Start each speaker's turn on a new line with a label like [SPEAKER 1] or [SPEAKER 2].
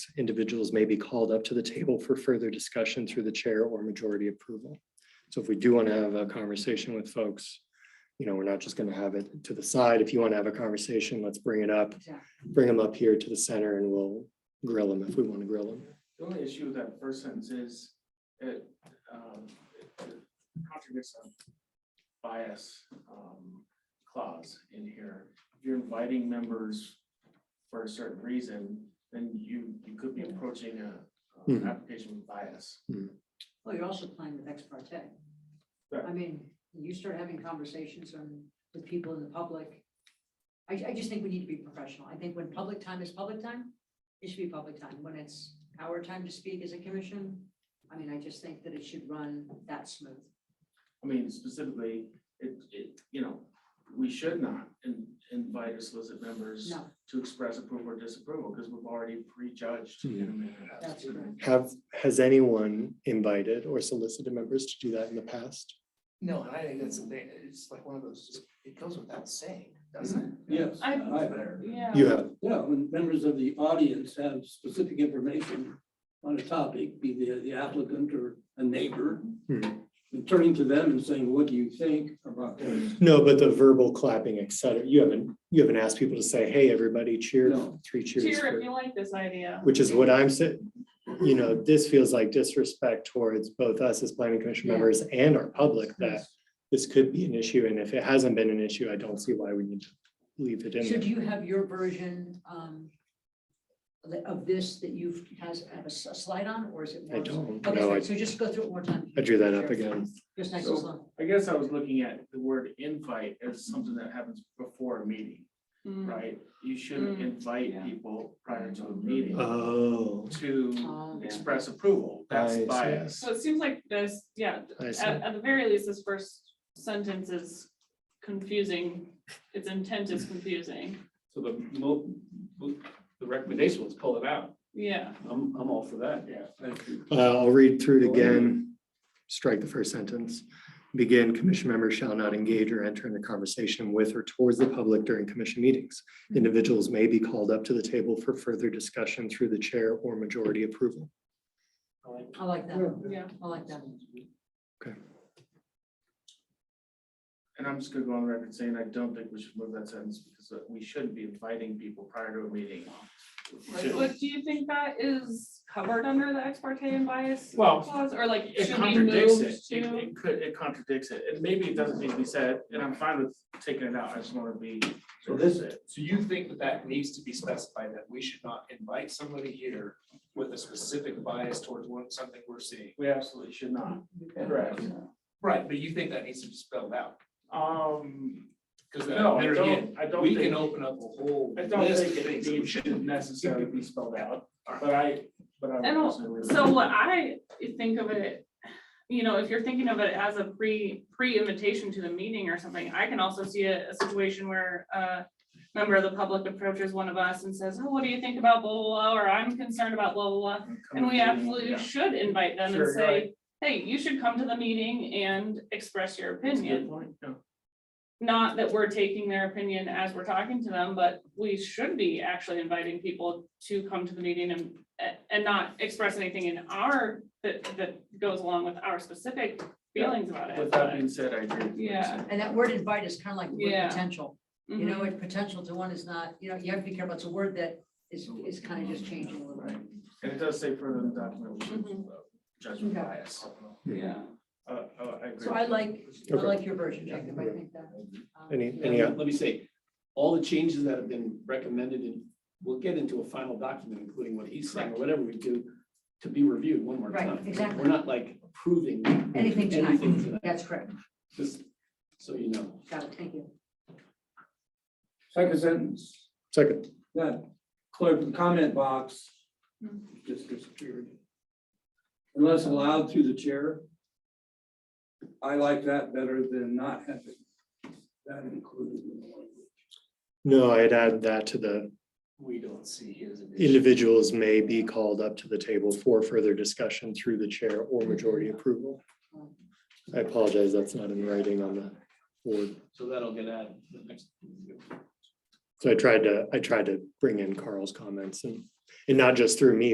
[SPEAKER 1] individuals may be called up to the table for further discussion through the chair or majority approval. So if we do want to have a conversation with folks, you know, we're not just going to have it to the side. If you want to have a conversation, let's bring it up,
[SPEAKER 2] Exactly.
[SPEAKER 1] bring them up here to the center and we'll grill them if we want to grill them.
[SPEAKER 3] The only issue with that first sentence is it um, it contradicts a bias um, clause in here. If you're inviting members for a certain reason, then you, you could be approaching a uh,
[SPEAKER 1] Mhm.
[SPEAKER 3] application with bias.
[SPEAKER 2] Well, you're also playing with ex parte.
[SPEAKER 3] Right.
[SPEAKER 2] I mean, you start having conversations on, with people in the public. I, I just think we need to be professional. I think when public time is public time, it should be public time. When it's our time to speak as a commission, I mean, I just think that it should run that smooth.
[SPEAKER 3] I mean, specifically, it, it, you know, we should not in- invite or solicit members
[SPEAKER 2] No,
[SPEAKER 3] to express approval or disapproval because we've already prejudged in a manner.
[SPEAKER 2] that's correct.
[SPEAKER 1] Have, has anyone invited or solicited members to do that in the past?
[SPEAKER 4] No, and I think that's the thing, it's like one of those, it goes without saying, doesn't it?
[SPEAKER 5] Yes.
[SPEAKER 6] I-
[SPEAKER 5] Yeah.
[SPEAKER 1] You have,
[SPEAKER 5] Yeah, when members of the audience have specific information on a topic, be the, the applicant or a neighbor,
[SPEAKER 1] Hmm.
[SPEAKER 5] and turning to them and saying, what do you think about this?
[SPEAKER 1] no, but the verbal clapping, et cetera, you haven't, you haven't asked people to say, hey, everybody cheer,
[SPEAKER 5] No.
[SPEAKER 1] three cheers.
[SPEAKER 6] Cheer
[SPEAKER 1] for-"
[SPEAKER 6] if you like this idea.
[SPEAKER 1] Which is what I'm saying, you know, this feels like disrespect towards both us as planning commission
[SPEAKER 2] Yeah.
[SPEAKER 1] members and our public that this could be an issue, and if it hasn't been an issue, I don't see why we need to leave it in
[SPEAKER 2] So
[SPEAKER 1] there.
[SPEAKER 2] do you have your version, um, of this that you've, has, have a s- a slide on, or is it? more-
[SPEAKER 1] I don't,
[SPEAKER 2] Okay,
[SPEAKER 1] no, I,
[SPEAKER 2] sorry, so just go through it one more time.
[SPEAKER 1] I drew that up again.
[SPEAKER 2] Just nice and slow.
[SPEAKER 3] I guess I was looking at the word invite as something that happens before a meeting,
[SPEAKER 6] Mm.
[SPEAKER 3] right? You shouldn't
[SPEAKER 6] Mm.
[SPEAKER 3] invite people prior to a
[SPEAKER 1] Mm.
[SPEAKER 3] meeting
[SPEAKER 1] Oh,
[SPEAKER 3] to
[SPEAKER 2] Um,
[SPEAKER 3] express approval. That's
[SPEAKER 1] I see.
[SPEAKER 3] bias.
[SPEAKER 6] So it seems like this, yeah,
[SPEAKER 1] I see.
[SPEAKER 6] at, at the very least, this first sentence is confusing. Its intent is confusing.
[SPEAKER 7] So the mo, the recommendation was pull it out.
[SPEAKER 6] Yeah,
[SPEAKER 7] I'm, I'm all for that.
[SPEAKER 3] Yeah.
[SPEAKER 1] Uh, I'll read through it again. Strike the first sentence. Begin, commission members shall not engage or enter into conversation with or towards the public during commission meetings. Individuals may be called up to the table for further discussion through the chair or majority approval.
[SPEAKER 2] I like that.
[SPEAKER 6] yeah.
[SPEAKER 2] I like that.
[SPEAKER 3] And I'm just gonna go on record saying I don't think we should move that sentence because we shouldn't be inviting people prior to a meeting. We shouldn't.
[SPEAKER 6] But do you think that is covered under the ex parte and bias
[SPEAKER 3] Well,
[SPEAKER 6] clause or like
[SPEAKER 3] It
[SPEAKER 6] should we
[SPEAKER 3] contradicts
[SPEAKER 6] move
[SPEAKER 3] it. It
[SPEAKER 6] to?
[SPEAKER 3] it could, it contradicts it. And maybe it doesn't need to be said, and I'm fine with taking it out. I just wanna be.
[SPEAKER 7] So this, so you think that that needs to be specified, that we should not invite somebody here with a specific bias towards one, something we're seeing?
[SPEAKER 3] We absolutely should not. Correct.
[SPEAKER 7] Right, but you think that needs to be spelled out?
[SPEAKER 3] Um,
[SPEAKER 7] Because
[SPEAKER 3] no, I
[SPEAKER 7] there again,
[SPEAKER 3] don't, I don't
[SPEAKER 7] we can
[SPEAKER 3] think,
[SPEAKER 7] open up a whole
[SPEAKER 3] I don't
[SPEAKER 7] list of
[SPEAKER 3] think it
[SPEAKER 7] things that we
[SPEAKER 3] needs to
[SPEAKER 7] shouldn't.
[SPEAKER 3] necessarily be spelled out, but I, but I. would
[SPEAKER 6] I don't-
[SPEAKER 3] personally-
[SPEAKER 6] So what I think of it, you know, if you're thinking of it as a pre, pre-invitation to the meeting or something, I can also see a, a situation where a member of the public approaches one of us and says, oh, what do you think about blah, blah, blah, or I'm concerned about blah, blah, blah. And we absolutely
[SPEAKER 3] Mm-hmm. Yeah.
[SPEAKER 6] should invite them
[SPEAKER 3] Sure, you're
[SPEAKER 6] and say,
[SPEAKER 3] right.
[SPEAKER 6] hey, you should come to the meeting and express your
[SPEAKER 3] That's a good
[SPEAKER 6] opinion.
[SPEAKER 3] point, yeah.
[SPEAKER 6] Not that we're taking their opinion as we're talking to them, but we should be actually inviting people to come to the meeting and, and not express anything in our, that, that goes along with our specific feelings about
[SPEAKER 3] With
[SPEAKER 6] it.
[SPEAKER 3] that being said, I agree. with what you
[SPEAKER 6] Yeah.
[SPEAKER 3] said.
[SPEAKER 2] And that word invite is kind of like the
[SPEAKER 6] Yeah. Mm-hmm.
[SPEAKER 2] word potential.
[SPEAKER 6] but-
[SPEAKER 2] You know, it potential to one is not, you know, you have to be careful. It's a word that is, is kind of just changing a little bit.
[SPEAKER 3] Right. And it does say further in the document, we should
[SPEAKER 6] Mhm.
[SPEAKER 3] uh, judge with
[SPEAKER 2] Okay.
[SPEAKER 3] bias.
[SPEAKER 6] Yeah.
[SPEAKER 3] Uh, uh, I agree.
[SPEAKER 2] So I like, I
[SPEAKER 1] Okay.
[SPEAKER 2] like your version, Jacob. I think that. um,
[SPEAKER 1] Any,
[SPEAKER 2] yeah.
[SPEAKER 1] any,
[SPEAKER 8] And let me say, all the changes that have been recommended, and we'll get into a final document, including what he's saying, or whatever we do, to be reviewed one more
[SPEAKER 2] Right,
[SPEAKER 8] time.
[SPEAKER 2] exactly.
[SPEAKER 8] We're not like approving
[SPEAKER 2] Anything tonight.
[SPEAKER 8] anything tonight,
[SPEAKER 2] That's correct.
[SPEAKER 8] just so you know.
[SPEAKER 2] Got it. Thank you.
[SPEAKER 5] Second sentence,
[SPEAKER 1] second,
[SPEAKER 5] that clerk comment box
[SPEAKER 6] Hmm.
[SPEAKER 5] just disappeared. Unless allowed through the chair. I like that better than not having that included in the language.
[SPEAKER 1] no, I'd add that to the
[SPEAKER 7] We don't see it as an issue.
[SPEAKER 1] individuals may be called up to the table for further discussion through the chair or majority approval. I apologize, that's not in writing on the board.
[SPEAKER 8] So that'll get added to the next.
[SPEAKER 1] So I tried to, I tried to bring in Carl's comments and, and not just through me,